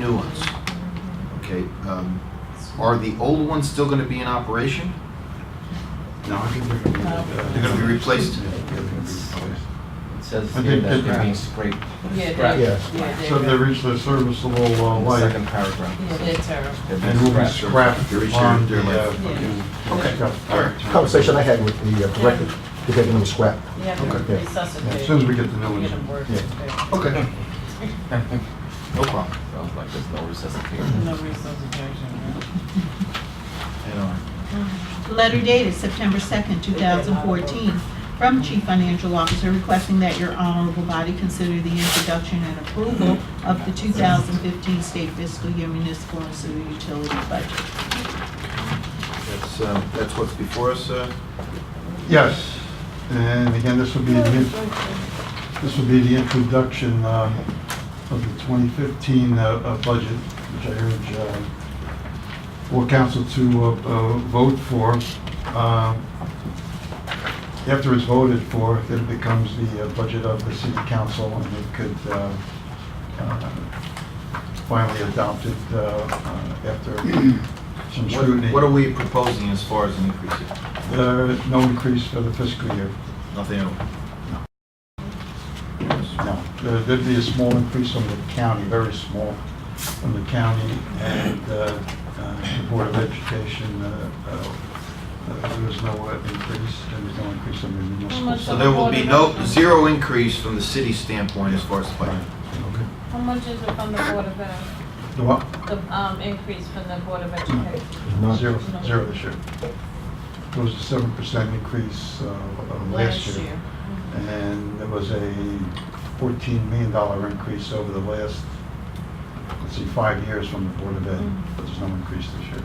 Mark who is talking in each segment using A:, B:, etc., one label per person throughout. A: new ones. Okay, um, are the old ones still gonna be in operation? No, they're gonna be replaced.
B: It says
C: I
B: here
C: think
B: that
C: that-
B: they're being scraped.
D: Yeah,
B: Scrap.
D: they-
B: In
C: Yeah.
D: yeah,
C: So they
D: they're,
C: reach their serviceable uh,
B: the
C: life
B: second paragraph.
D: yeah,
B: it
D: they're
B: says
D: terrible.
B: they're being
C: and will be
B: scrapped.
C: scrapped
A: They're reaching
C: on
A: their
C: the. uh,
A: life.
D: Yeah.
A: Okay,
C: Yeah.
A: all right.
E: Conversation I had with the uh, director, to get them scrap.
D: You have to
E: Okay.
C: yeah,
D: resuscitate.
C: As soon as we get the new
D: Get them
C: ones.
D: worked.
E: Yeah.
D: there.
A: Okay. No problem.
B: Sounds like there's no resuscitation.
D: No resuscitation,
F: Letter dated September 2nd, 2014, from Chief Financial Officer requesting that your honorable body consider the introduction and approval of the 2015 state fiscal year municipal and sewer utility budget.
A: That's, uh, that's what's before us, uh,
C: Yes, and again, this will be, the in- this will be the introduction uh, of the 2015 uh, uh, budget, which I urge uh, full council to uh, uh, vote for. Um, After it's voted for, it becomes the uh, budget of the city council, and it could uh, uh, finally adopt it uh, uh, after some scrutiny.
A: what, what are we proposing as far as an increase? here?
C: Uh, No increase for the fiscal year.
A: Nothing at all?
C: No, There- there'd be a small increase on the county, very small, on the county and uh, uh, the Board of Education. uh, uh, uh, There was no uh, increase, and there's no increase on the municipal.
D: much
A: So
C: side.
A: there will be no, zero increase from the city standpoint as far as the budget?
D: How much is it from the Board of, Ed-
C: The what?
D: the, um, increase from the Board of Education?
E: None.
C: Zero, zero this year. There was a seven percent increase uh, of last year. And there was a fourteen million dollar increase over the last, let's see, five years from the Board of Ed,
D: Mm-hmm.
C: but there's no increase this year.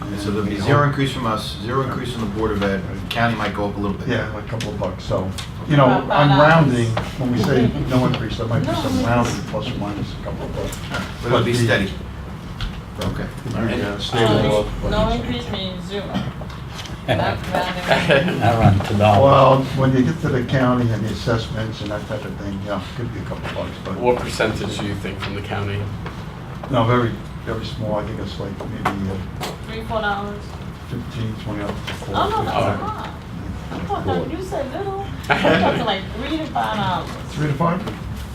A: And
C: And
A: So there'll be
C: we
A: zero
C: hope-
A: increase from us, zero increase from the Board of Ed, county might go up a little bit.
C: Yeah, a couple of bucks, so, you know,
D: About
C: I'm
D: five
C: rounding, when we say no increase, there might be
D: No,
C: some
D: it's-
C: rounding, plus or minus a couple of bucks.
A: But it'll be
C: But the-
A: steady. Okay.
C: Could be,
A: All right.
C: uh, stable.
D: Um, No increase means zero. That's rounding.
G: I run to dollar.
C: Well, when you get to the county and the assessments and that type of thing, yeah, could be a couple of bucks, but,
H: What percentage do you think from the county?
C: no, very, very small, I think it's like maybe uh,
D: Three, four dollars?
C: 15, 20 up to four.
D: Oh, no, that's a
H: Alright.
D: lot. I'm talking, you said little, I'm talking like three to five dollars.
C: Three to five?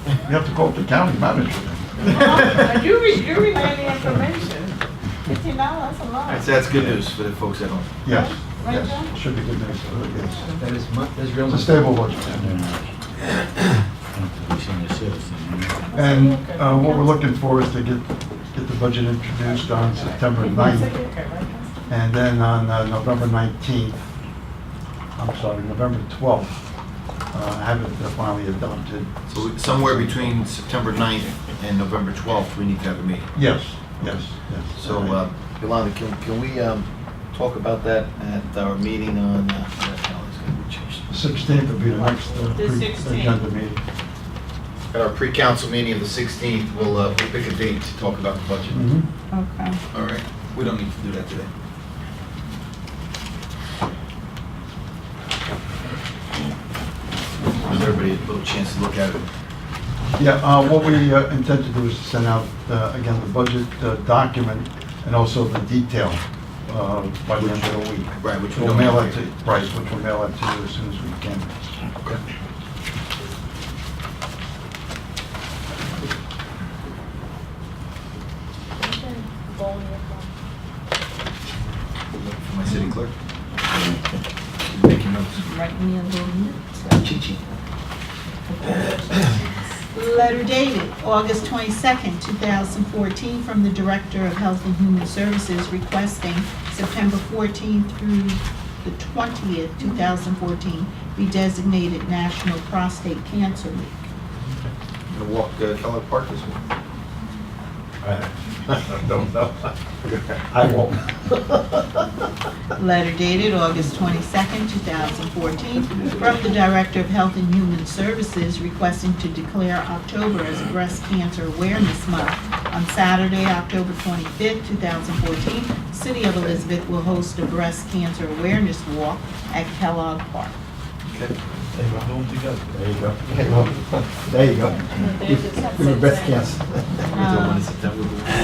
C: You have to call up the county manager.
D: Oh, You re, you relaying the information. Fifteen dollars, that's a
A: All right,
D: lot.
A: so that's good news for the folks at home.
C: Yes,
D: Right, John?
C: yes, should be good news, uh, yes.
B: That is mu, that is real.
C: It's a stable budget. And uh, what we're looking for is to get, get the budget introduced on September 9th,
D: Okay, right?
C: and then on uh, November 19th, I'm sorry, November 12th, uh, have it finally adopted.
A: So we- somewhere between September 9th and November 12th, we need to have a meeting.
C: Yes, yes, yes.
A: So, uh, Yolanda, can, can we um, talk about that at our meeting on, uh, no, it's gonna be changed.
C: The 16th will be the next uh, pre-
D: The 16th.
C: agenda meeting.
A: at our pre-council meeting of the 16th, we'll, uh, we'll pick a date to talk about the budget.
C: Mhm.
F: Okay.
A: All right, we don't need to do that today. Gives everybody a little chance to look at it.
C: Yeah, uh, what we uh, intend to do is send out, uh, again, the budget uh, document and also the detail uh, by the end of the week.
A: Right, which we
C: We'll
A: don't
C: mail it
A: have
C: to,
A: here.
C: right, which we'll mail it to you as soon as we can.
A: Look For my city clerk. Making notes.
F: Write me a little note.
A: Chi-chi.
F: Letter dated August 22nd, 2014, from the Director of Health and Human Services requesting September 14th through the 20th, 2014, be designated National Prostate Cancer Week.
A: I'm gonna walk uh, Keller Park this morning. I don't know.
C: I won't.
F: Letter dated August 22nd, 2014, from the Director of Health and Human Services requesting to declare October as Breast Cancer Awareness Month. On Saturday, October 25th, 2014, City of Elizabeth will host a Breast Cancer Awareness Walk at Kellogg Park.
A: Okay.
E: There you go. There you go. Give her best chance.
A: Until
I: Um,
F: Uh,
A: when is September?